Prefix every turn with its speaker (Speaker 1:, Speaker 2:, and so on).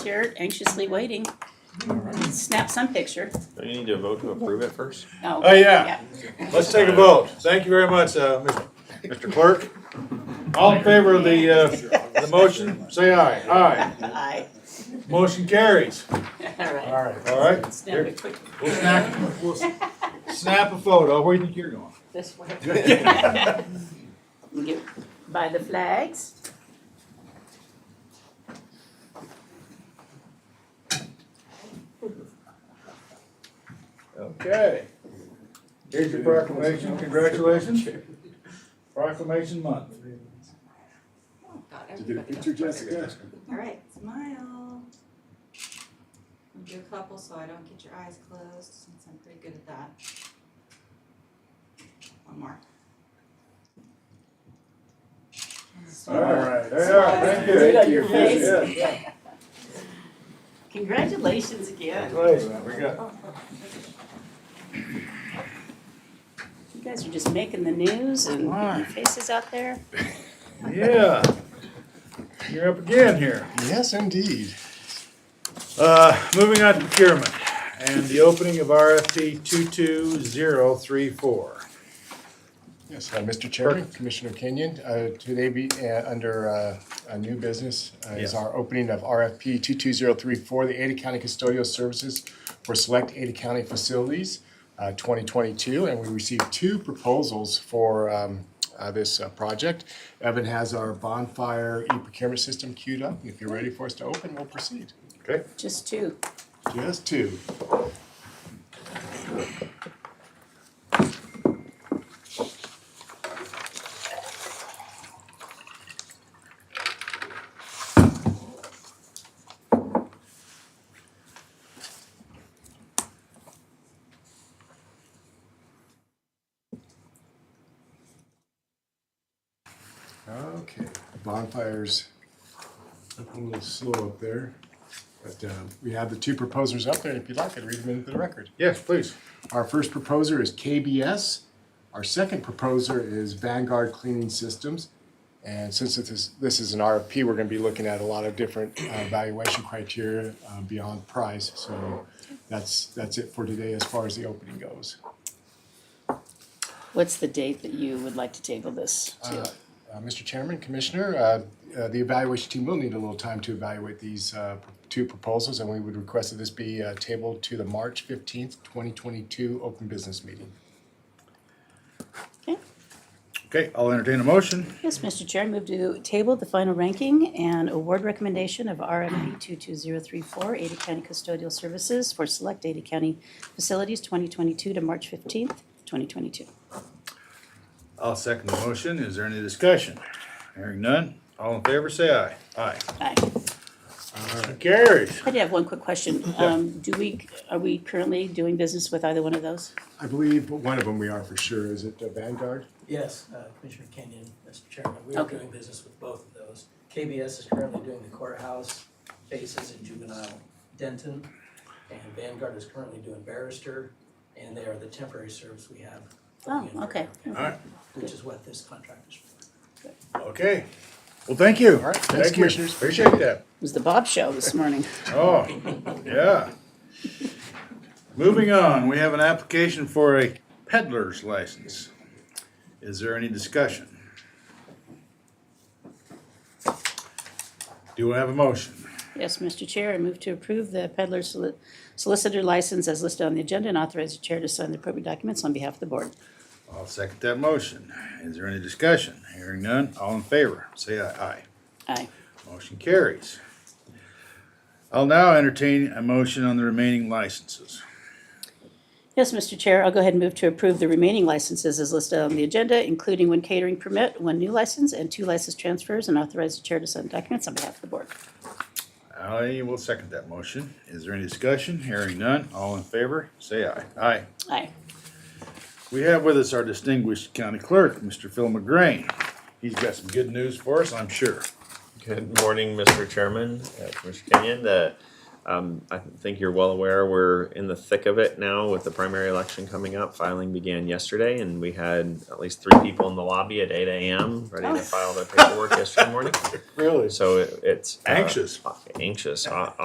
Speaker 1: Jared anxiously waiting. Snap some picture.
Speaker 2: Don't you need to vote to approve it first?
Speaker 1: Oh.
Speaker 3: Oh, yeah. Let's take a vote. Thank you very much, uh, Mr. Clerk. All in favor of the, uh, the motion, say aye. Aye.
Speaker 1: Aye.
Speaker 3: Motion carries.
Speaker 1: All right.
Speaker 3: All right?
Speaker 1: Snap it quick
Speaker 3: We'll snap, we'll snap a photo. Where do you think you're going?
Speaker 1: this way.
Speaker 3: Good.
Speaker 1: You get by the flags.
Speaker 3: Okay. Here's your proclamation. Congratulations. Proclamation month.
Speaker 4: Did you get a picture, Jessica?
Speaker 5: All right, smile. I'll do a couple so I don't get your eyes closed, since I'm pretty good at that. One more.
Speaker 3: All right, there you are. Thank you.
Speaker 1: Right on your face.
Speaker 3: Yes, yes.
Speaker 1: Congratulations again.
Speaker 3: Please, we got,
Speaker 1: You guys are just making the news and getting faces out there.
Speaker 3: yeah. You're up again here.
Speaker 4: Yes, indeed.
Speaker 3: Uh, moving on to procurement and the opening of RFP two-two-zero-three-four.
Speaker 4: Yes, uh, Mr. Chairman, Commissioner Kenyon, uh, today be, uh, under, uh, a new business uh, is
Speaker 3: Yes.
Speaker 4: our opening of RFP two-two-zero-three-four, the Ada County Custodial Services for Select Ada County Facilities, uh, twenty-twenty-two, and we received two proposals for, um, uh, this, uh, project. Evan has our bonfire e-procurement system queued up, and if you're ready for us to open, we'll proceed.
Speaker 3: Okay.
Speaker 1: Just two.
Speaker 4: Just two. Okay, bonfires, a little slow up there. But um, we have the two proposers up there, and if you'd like, I'd read them into the record.
Speaker 3: Yes, please.
Speaker 4: Our first proposer is KBS. Our second proposer is Vanguard Cleaning Systems. And since this is, this is an RFP, we're gonna be looking at a lot of different uh, valuation criteria uh, beyond price. So that's, that's it for today as far as the opening goes.
Speaker 1: What's the date that you would like to table this
Speaker 4: Uh,
Speaker 1: to?
Speaker 4: uh, Mr. Chairman, Commissioner, uh, uh, the evaluation team will need a little time to evaluate these uh, pr- two proposals, and we would request that this be uh, tabled to the March 15th, 2022 open business meeting.
Speaker 1: Okay.
Speaker 3: Okay, I'll entertain a motion.
Speaker 1: Yes, Mr. Chair, I move to table the final ranking and award recommendation of RFP 22034, Ada County Custodial Services for Select Ada County Facilities 2022 to March 15th, 2022.
Speaker 3: I'll second the motion. Is there any discussion? Hearing none. All in favor, say aye. Aye.
Speaker 1: Aye.
Speaker 3: Motion carries.
Speaker 1: I did have one quick question. Um, Do we, are we currently doing business with either one of those?
Speaker 4: I believe one of them we are for sure. Is it uh, Vanguard?
Speaker 6: Yes, uh, Commissioner Kenyon, Mr. Chairman, we are
Speaker 1: Okay.
Speaker 6: doing business with both of those. KBS is currently doing the courthouse, Faces and Juvenile Denton, and Vanguard is currently doing Barrister, and they are the temporary service we have.
Speaker 1: Oh, okay.
Speaker 3: All right,
Speaker 6: Which is what this contract is for.
Speaker 3: okay. Well, thank you.
Speaker 4: All right, thanks,
Speaker 3: Thank you.
Speaker 4: Commissioners.
Speaker 3: Appreciate that.
Speaker 1: It was the Bob Show this morning.
Speaker 3: Oh, yeah. Moving on, we have an application for a peddler's license. Is there any discussion? Do I have a motion?
Speaker 1: Yes, Mr. Chair, I move to approve the peddler soli- solicitor license as listed on the agenda and authorize the chair to sign the appropriate documents on behalf of the board.
Speaker 3: I'll second that motion. Is there any discussion? Hearing none, all in favor, say aye.
Speaker 1: Aye.
Speaker 3: Aye. Motion carries. I'll now entertain a motion on the remaining licenses.
Speaker 1: Yes, Mr. Chair, I'll go ahead and move to approve the remaining licenses as listed on the agenda, including one catering permit, one new license, and two license transfers, and authorize the chair to sign documents on behalf of the board.
Speaker 3: I will second that motion. Is there any discussion? Hearing none, all in favor, say aye. Aye.
Speaker 1: Aye.
Speaker 3: We have with us our distinguished county clerk, Mr. Phil McGrain. He's got some good news for us, I'm sure.
Speaker 2: Good morning, Mr. Chairman, uh, Commissioner Kenyon. The, um, I think you're well aware, we're in the thick of it now with the primary election coming up. Filing began yesterday and we had at least three people in the lobby at eight AM ready to file their paperwork yesterday morning.
Speaker 4: Really?
Speaker 2: So it- it's. uh,
Speaker 3: Anxious.
Speaker 2: Anxious, uh, o-